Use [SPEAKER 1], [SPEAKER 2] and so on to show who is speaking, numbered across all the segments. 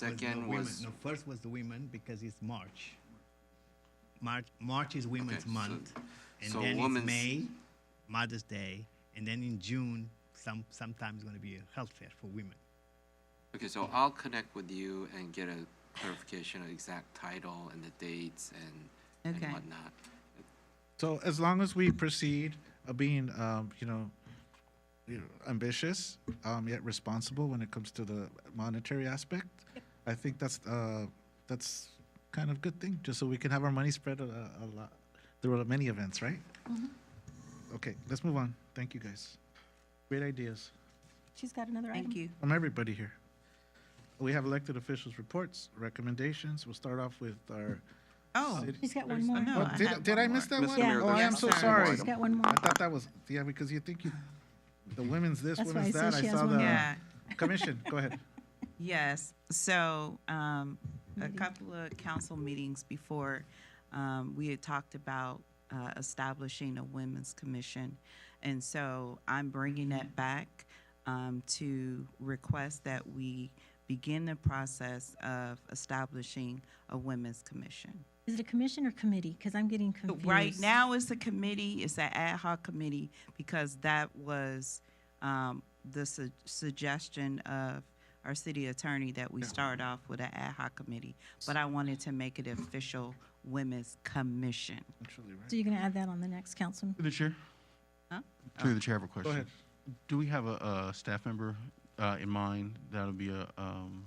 [SPEAKER 1] Second
[SPEAKER 2] women.
[SPEAKER 1] was-
[SPEAKER 2] No, first was the women because it's March. March, March is Women's
[SPEAKER 1] Okay, so-
[SPEAKER 2] Month. And
[SPEAKER 1] so
[SPEAKER 2] then it's
[SPEAKER 1] women's-
[SPEAKER 2] May, Mother's Day, and then in June, some, sometimes gonna be a health fair for women.
[SPEAKER 1] Okay, so I'll connect with you and get a clarification of exact title and the dates and,
[SPEAKER 3] Okay.
[SPEAKER 1] and whatnot.
[SPEAKER 4] So as long as we proceed uh, being, um, you know, you know, ambitious, um, yet responsible when it comes to the monetary aspect, I think that's, uh, that's kind of good thing, just so we can have our money spread a, a lot, through many events, right?
[SPEAKER 3] Mm-hmm.
[SPEAKER 4] Okay, let's move on. Thank you, guys. Great ideas
[SPEAKER 5] She's got another item.
[SPEAKER 3] Thank you.
[SPEAKER 4] from everybody here. We have elected officials' reports, recommendations. We'll start off with our.
[SPEAKER 3] Oh,
[SPEAKER 4] city-
[SPEAKER 5] She's got one more.
[SPEAKER 3] no,
[SPEAKER 4] Oh,
[SPEAKER 3] I have
[SPEAKER 4] Did, did
[SPEAKER 3] one
[SPEAKER 4] I miss
[SPEAKER 3] more.
[SPEAKER 4] that one?
[SPEAKER 5] Mr. Mayor,
[SPEAKER 4] Oh, I am
[SPEAKER 5] there's
[SPEAKER 4] so
[SPEAKER 5] one more
[SPEAKER 4] sorry.
[SPEAKER 5] item. She's got one more.
[SPEAKER 4] I thought that was, yeah, because you think you, the women's this,
[SPEAKER 5] That's why
[SPEAKER 4] women's
[SPEAKER 5] I said
[SPEAKER 4] that. I
[SPEAKER 5] she has
[SPEAKER 4] saw
[SPEAKER 5] one more.
[SPEAKER 4] the
[SPEAKER 3] yeah,
[SPEAKER 4] commission. Go ahead.
[SPEAKER 3] yes. So um, a couple of council meetings before, um, we had talked about uh, establishing a women's commission. And so I'm bringing that back um, to request that we begin the process of establishing a women's commission.
[SPEAKER 5] Is it a commission or committee? Because I'm getting confused.
[SPEAKER 3] Right now, it's a committee, it's an ad hoc committee, because that was um, the su- suggestion of our city attorney that we start off with an ad hoc committee. But I wanted to make it official Women's Commission.
[SPEAKER 4] Actually, right.
[SPEAKER 5] So you're going to add that on the next council?
[SPEAKER 6] Through the chair?
[SPEAKER 3] Huh?
[SPEAKER 5] Oh.
[SPEAKER 6] Through the chair, I have a question.
[SPEAKER 4] ahead.
[SPEAKER 6] Do we have a, a staff member uh, in mind that'll be a, um,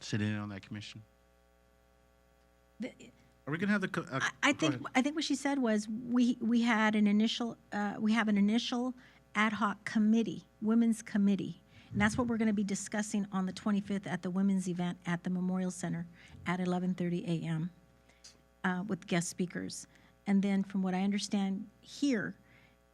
[SPEAKER 6] sitting in on that commission?
[SPEAKER 5] The-
[SPEAKER 4] Are we gonna have the? co- uh,
[SPEAKER 5] I- I
[SPEAKER 4] go
[SPEAKER 5] think,
[SPEAKER 4] ahead.
[SPEAKER 5] I think what she said was, we, we had an initial, uh, we have an initial ad hoc committee, women's committee. And that's what we're going to be discussing on the 25th at the women's event at the Memorial Center at 11:30 a.m. uh, with guest speakers. And then from what I understand here,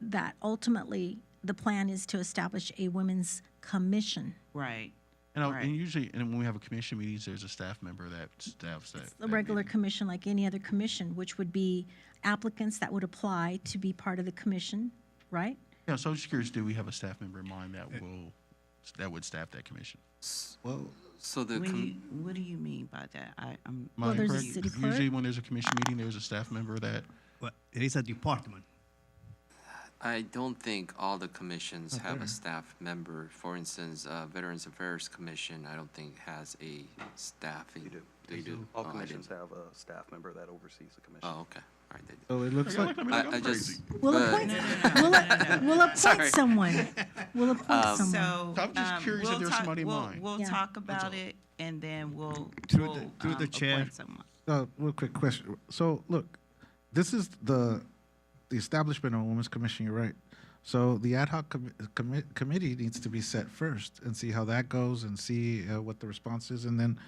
[SPEAKER 5] that ultimately, the plan is to establish a women's commission.
[SPEAKER 3] Right.
[SPEAKER 6] And, I'll-
[SPEAKER 3] Right.
[SPEAKER 6] and usually, and when we have a commission meetings, there's a staff member that staffs that.
[SPEAKER 5] a
[SPEAKER 6] that
[SPEAKER 5] regular
[SPEAKER 6] meeting.
[SPEAKER 5] commission like any other commission, which would be applicants that would apply to be part of the commission, right?
[SPEAKER 6] Yeah, so I'm just curious, do we have a staff member in mind that will, that would staff that commission?
[SPEAKER 4] Well,
[SPEAKER 1] So the,
[SPEAKER 3] What do you,
[SPEAKER 1] com-
[SPEAKER 3] what do you mean by that? I, I'm.
[SPEAKER 6] Am I
[SPEAKER 5] there's a
[SPEAKER 6] correct?
[SPEAKER 5] city clerk.
[SPEAKER 6] Usually when there's a commission meeting, there's a staff member that,
[SPEAKER 2] But there is a department.
[SPEAKER 1] I don't think all the commissions have a staff member. For instance, uh, Veterans Affairs Commission, I don't think has a staffing. They do. They do?
[SPEAKER 7] All
[SPEAKER 1] Oh, I
[SPEAKER 7] commissions
[SPEAKER 1] didn't-
[SPEAKER 7] have a staff member that oversees the commission.
[SPEAKER 1] Oh, okay, all right, they do.
[SPEAKER 4] so it looks like,
[SPEAKER 6] I mean, like,
[SPEAKER 1] I, I
[SPEAKER 6] I'm
[SPEAKER 1] just.
[SPEAKER 6] crazy.
[SPEAKER 5] We'll
[SPEAKER 1] but-
[SPEAKER 5] appoint, we'll, we'll appoint someone. We'll
[SPEAKER 1] Um,
[SPEAKER 5] appoint someone.
[SPEAKER 3] So.
[SPEAKER 6] I'm just
[SPEAKER 3] um,
[SPEAKER 6] curious if
[SPEAKER 3] we'll
[SPEAKER 6] there's
[SPEAKER 3] talk-
[SPEAKER 6] somebody in
[SPEAKER 3] we'll-
[SPEAKER 6] mind.
[SPEAKER 3] We'll
[SPEAKER 5] Yeah.
[SPEAKER 3] talk about it, and then we'll.
[SPEAKER 2] Through the-
[SPEAKER 3] we'll,
[SPEAKER 2] through the
[SPEAKER 3] um,
[SPEAKER 2] chair.
[SPEAKER 3] appoint someone.
[SPEAKER 4] uh, real quick question. So look, this is the, the establishment of a women's commission, you're right. So the ad hoc commi- commi- committee needs to be set first and see how that goes and see uh, what the response is. And then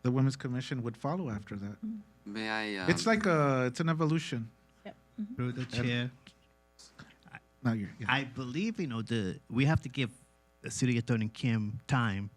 [SPEAKER 4] the women's commission would follow after that.
[SPEAKER 5] Mm-hmm.
[SPEAKER 1] May I? um,
[SPEAKER 4] It's like a, it's an evolution.
[SPEAKER 2] Through the chair,
[SPEAKER 4] Now you're, yeah.
[SPEAKER 2] Mm-hmm. I believe, you know, the, we have to give the City Attorney Kim time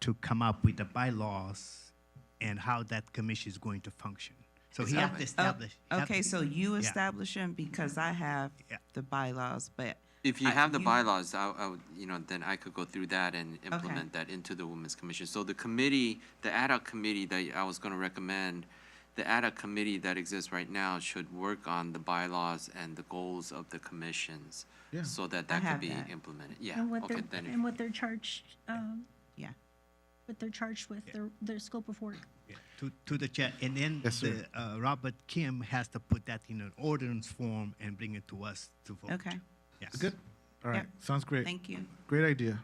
[SPEAKER 2] to come up with the bylaws and how that commission is going to function. So he has to
[SPEAKER 1] Exactly.
[SPEAKER 2] establish. he has
[SPEAKER 3] Okay,
[SPEAKER 2] to-
[SPEAKER 3] so you
[SPEAKER 2] yeah.
[SPEAKER 3] establish them because I have
[SPEAKER 2] Yeah.
[SPEAKER 3] the bylaws, but.
[SPEAKER 1] If you
[SPEAKER 3] I-
[SPEAKER 1] have the bylaws, I, I would, you know, then I could go through that and implement that into the Women's Commission. So the committee, the ad hoc committee that I was gonna recommend, the ad hoc committee that exists right now should work on the bylaws and the goals of the commissions.
[SPEAKER 4] Yeah.
[SPEAKER 1] So that that
[SPEAKER 3] I
[SPEAKER 1] could
[SPEAKER 3] have
[SPEAKER 1] be
[SPEAKER 3] that.
[SPEAKER 1] implemented. Yeah,
[SPEAKER 5] And what
[SPEAKER 1] okay,
[SPEAKER 5] they're,
[SPEAKER 1] then,
[SPEAKER 5] and
[SPEAKER 1] if-
[SPEAKER 5] what they're charged, um,
[SPEAKER 3] Yeah,
[SPEAKER 5] what they're charged with, their, their scope of work.
[SPEAKER 2] Yeah, To, to the chair, and then
[SPEAKER 4] Yes,
[SPEAKER 2] the,
[SPEAKER 4] sir.
[SPEAKER 2] uh, Robert Kim has to put that in an ordinance form and bring it to us to vote.
[SPEAKER 3] okay,
[SPEAKER 2] Yes.
[SPEAKER 4] Good? All right,
[SPEAKER 3] Yep.
[SPEAKER 4] sounds great.
[SPEAKER 3] thank you.
[SPEAKER 4] Great idea.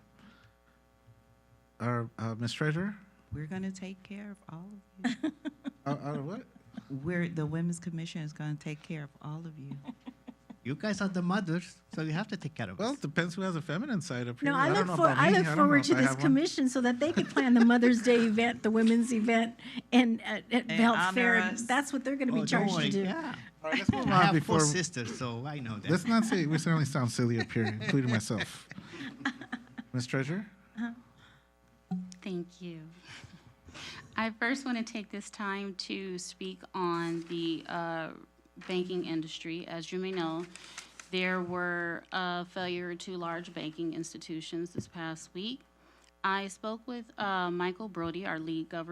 [SPEAKER 4] Our, uh, Ms. Treasurer,
[SPEAKER 3] We're gonna take care of all of you.
[SPEAKER 4] out, out of what?
[SPEAKER 3] We're, the Women's Commission is gonna take care of all of you.
[SPEAKER 2] You guys are the mothers, so you have to take care of
[SPEAKER 4] Well,
[SPEAKER 2] us.
[SPEAKER 4] it depends who has a feminine side up here.
[SPEAKER 5] No, I
[SPEAKER 4] don't
[SPEAKER 5] look
[SPEAKER 4] know
[SPEAKER 5] for,
[SPEAKER 4] about
[SPEAKER 5] I
[SPEAKER 4] me.
[SPEAKER 5] look
[SPEAKER 4] don't know
[SPEAKER 5] forward
[SPEAKER 4] if
[SPEAKER 5] to
[SPEAKER 4] I
[SPEAKER 5] this
[SPEAKER 4] have one.
[SPEAKER 5] commission so that they could plan the Mother's Day event, the women's event, and, uh, at the health
[SPEAKER 3] honor
[SPEAKER 5] fair.
[SPEAKER 3] us.
[SPEAKER 5] That's what they're going to
[SPEAKER 2] Oh,
[SPEAKER 5] be
[SPEAKER 2] don't
[SPEAKER 5] charged to
[SPEAKER 2] worry,
[SPEAKER 5] do.
[SPEAKER 2] yeah.
[SPEAKER 4] All right, let's move
[SPEAKER 2] I
[SPEAKER 4] on
[SPEAKER 2] have four
[SPEAKER 4] before,
[SPEAKER 2] sisters, so I know that.
[SPEAKER 4] let's not say, we certainly sound silly up here, including myself. Ms. Treasurer?
[SPEAKER 8] Thank you. I first want to take this time to speak on the uh, banking industry. As you may know, there were a failure to large banking institutions this past week. I spoke with uh, Michael Brody, our lead governor.